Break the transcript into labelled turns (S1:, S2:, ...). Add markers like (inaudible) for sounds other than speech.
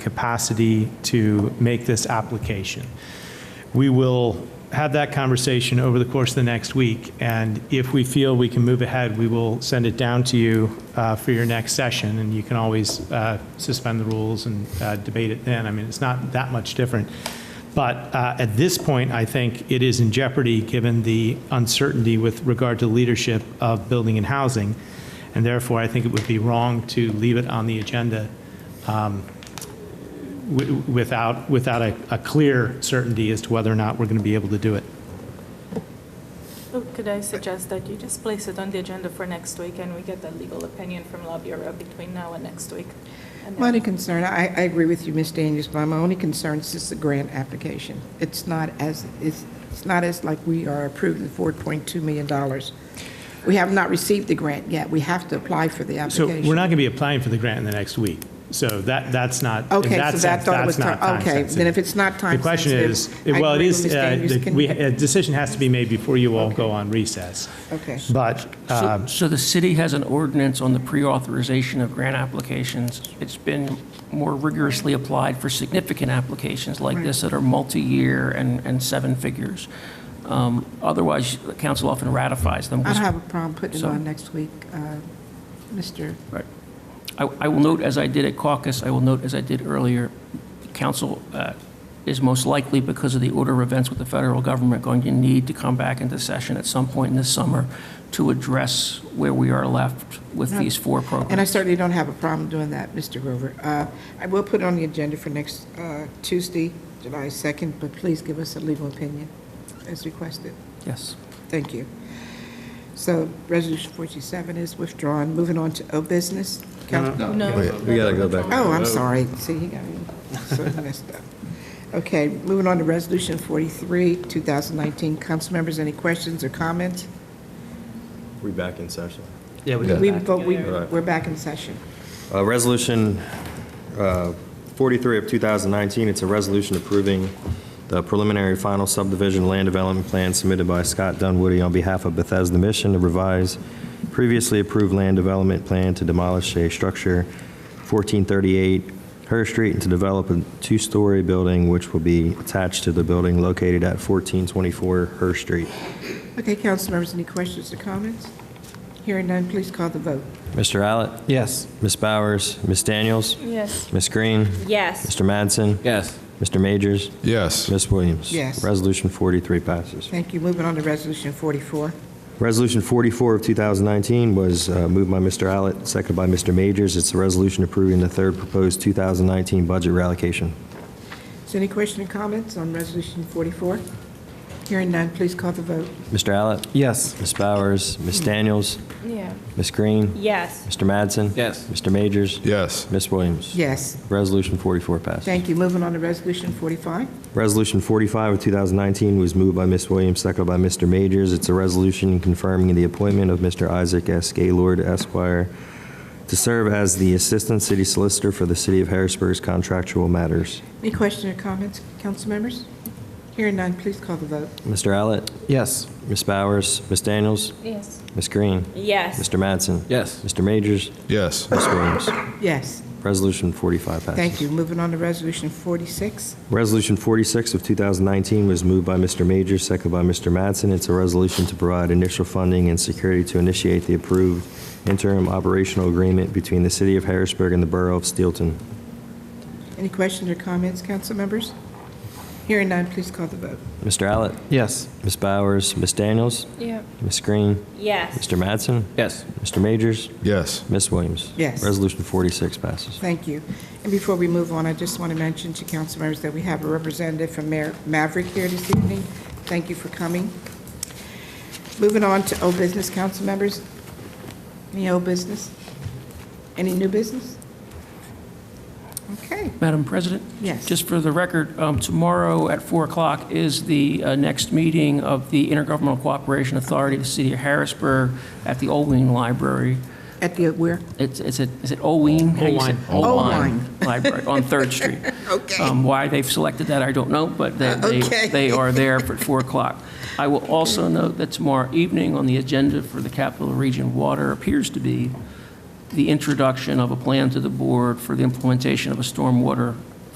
S1: capacity to make this application. We will have that conversation over the course of the next week, and if we feel we can move ahead, we will send it down to you uh, for your next session, and you can always uh, suspend the rules and uh, debate it then. I mean, it's not that much different. But uh, at this point, I think it is in jeopardy, given the uncertainty with regard to leadership of building and housing, and therefore, I think it would be wrong to leave it on the agenda wi- without, without a, a clear certainty as to whether or not we're going to be able to do it.
S2: So Oh, Could I suggest that you just place it on the agenda for next week and we get the legal opinion from Law Bureau between now and next week? And
S3: My
S2: then-
S3: only concern, I, I agree with you, Ms. Daniels, but my only concern is just the grant application. It's not as, it's, it's not as like we are approved the four point two million dollars. We have not received the grant yet. We have to apply for the
S1: So
S3: application.
S1: we're not going to be applying for the grant in the next week. So that, that's not, in
S3: Okay,
S1: that
S3: so that
S1: sense,
S3: thought it was,
S1: that's
S3: time-
S1: not time
S3: okay,
S1: sensitive.
S3: then if it's not time sensitive.
S1: The question
S3: I
S1: is, well, it
S3: agree with
S1: is,
S3: Ms.
S1: uh,
S3: Daniels.
S1: the-
S3: Can-
S1: we- a decision has to be made before you all go on recess.
S3: Okay.
S1: But,
S4: So-
S1: um,
S4: So the city has an ordinance on the pre-authorization of grant applications. It's been more rigorously applied for significant applications like this that are multi-year and, and seven figures. Um, Otherwise, the council often ratifies them.
S3: I don't have a problem putting it
S4: So-
S3: on next week, uh, Mr.
S4: Right. I, I will note, as I did at caucus, I will note, as I did earlier, council uh, is most likely, because of the order of events with the federal government, going to need to come back into session at some point in this summer to address where we are left with these four programs.
S3: And I certainly don't have a problem doing that, Mr. Grover. Uh, I will put it on the agenda for next uh, Tuesday, July 2nd, but please give us a legal opinion as requested.
S4: Yes.
S3: Thank you. So Resolution 47 is withdrawn. Moving on to O business. Council-
S2: No.
S5: Wait, we gotta go back.
S3: Oh, I'm sorry. See, he got me so messed up. Okay, moving on to Resolution 43, 2019. Council members, any questions or comments?
S5: We back in session.
S6: Yeah, we
S3: We vote, we-
S5: Right.
S3: we're back in session.
S5: Uh, Resolution uh, 43 of 2019, it's a resolution approving the preliminary final subdivision land development plan submitted by Scott Dunwoody on behalf of Bethesda Mission to revise previously approved land development plan to demolish a structure 1438 Her Street and to develop a two-story building which will be attached to the building located at 1424 Her Street.
S3: Okay, council members, any questions or comments? Hearing none, please call the vote.
S5: Mr. Allett? Yes. Ms. Bowers? Ms. Daniels?
S2: Yes.
S5: Ms. Green?
S7: Yes.
S5: Mr. Madsen?
S6: Yes.
S5: Mr. Majors?
S8: Yes.
S5: Ms. Williams?
S3: Yes.
S5: Resolution 43 passes.
S3: Thank you. Moving on to Resolution 44.
S5: Resolution 44 of 2019 was uh, moved by Mr. Allett, seconded by Mr. Majors. It's a resolution approving the third proposed 2019 budget reallocation.
S3: Is there any question or comments on Resolution 44? Hearing none, please call the vote.
S5: Mr. Allett? Yes. Ms. Bowers? Ms. Daniels?
S2: Yeah.
S5: Ms. Green?
S7: Yes.
S5: Mr. Madsen?
S6: Yes.
S5: Mr. Majors?
S8: Yes.
S5: Ms. Williams?
S3: Yes.
S5: Resolution 44 passes.
S3: Thank you. Moving on to Resolution 45.
S5: Resolution 45 of 2019 was moved by Ms. Williams, seconded by Mr. Majors. It's a resolution confirming the appointment of Mr. Isaac S. Gaylord Esquire to serve as the Assistant City Solicitor for the City of Harrisburg's contractual matters.
S3: Any question or comments, council members? Hearing none, please call the vote.
S5: Mr. Allett? Yes. Ms. Bowers? Ms. Daniels?
S2: Yes.
S5: Ms. Green?
S7: Yes.
S5: Mr. Madsen?
S6: Yes.
S5: Mr. Majors?
S8: Yes.
S5: Ms. Williams?
S3: Yes.
S5: Resolution 45 passes.
S3: Thank you. Moving on to Resolution 46.
S5: Resolution 46 of 2019 was moved by Mr. Major, seconded by Mr. Mattson. It's a resolution to provide initial funding and security to initiate the approved interim operational agreement between the City of Harrisburg and the Borough of Steelton.
S3: Any questions or comments, council members? Hearing none, please call the vote.
S5: Mr. Allett? Yes. Ms. Bowers? Ms. Daniels?
S2: Yeah.
S5: Ms. Green?
S7: Yes.
S5: Mr. Mattson?
S6: Yes.
S5: Mr. Majors?
S8: Yes.
S5: Ms. Williams?
S3: Yes.
S5: Resolution 46 passes.
S3: Thank you. And before we move on, I just want to mention to council members that we have a representative from Mayor Maverick here this evening. Thank you for coming. Moving on to old business, council members. Any old business? Any new business? Okay.
S4: Madam President?
S3: Yes.
S4: Just for the record, um, tomorrow at 4 o'clock is the uh, next meeting of the Intergovernmental Cooperation Authority of the City of Harrisburg at the Olween Library.
S3: At the, where?
S4: It's, it's at, is it Olween? How do you say-
S3: Olween.
S4: Olween Library
S3: (laughs)
S4: on Third Street.
S3: Okay.
S4: Um, Why they've selected that, I don't know, but they,
S3: Okay.
S4: they, they are there for 4 o'clock. I will also note that tomorrow evening on the agenda for the Capital Region Water appears to be the introduction of a plan to the board for the implementation of a stormwater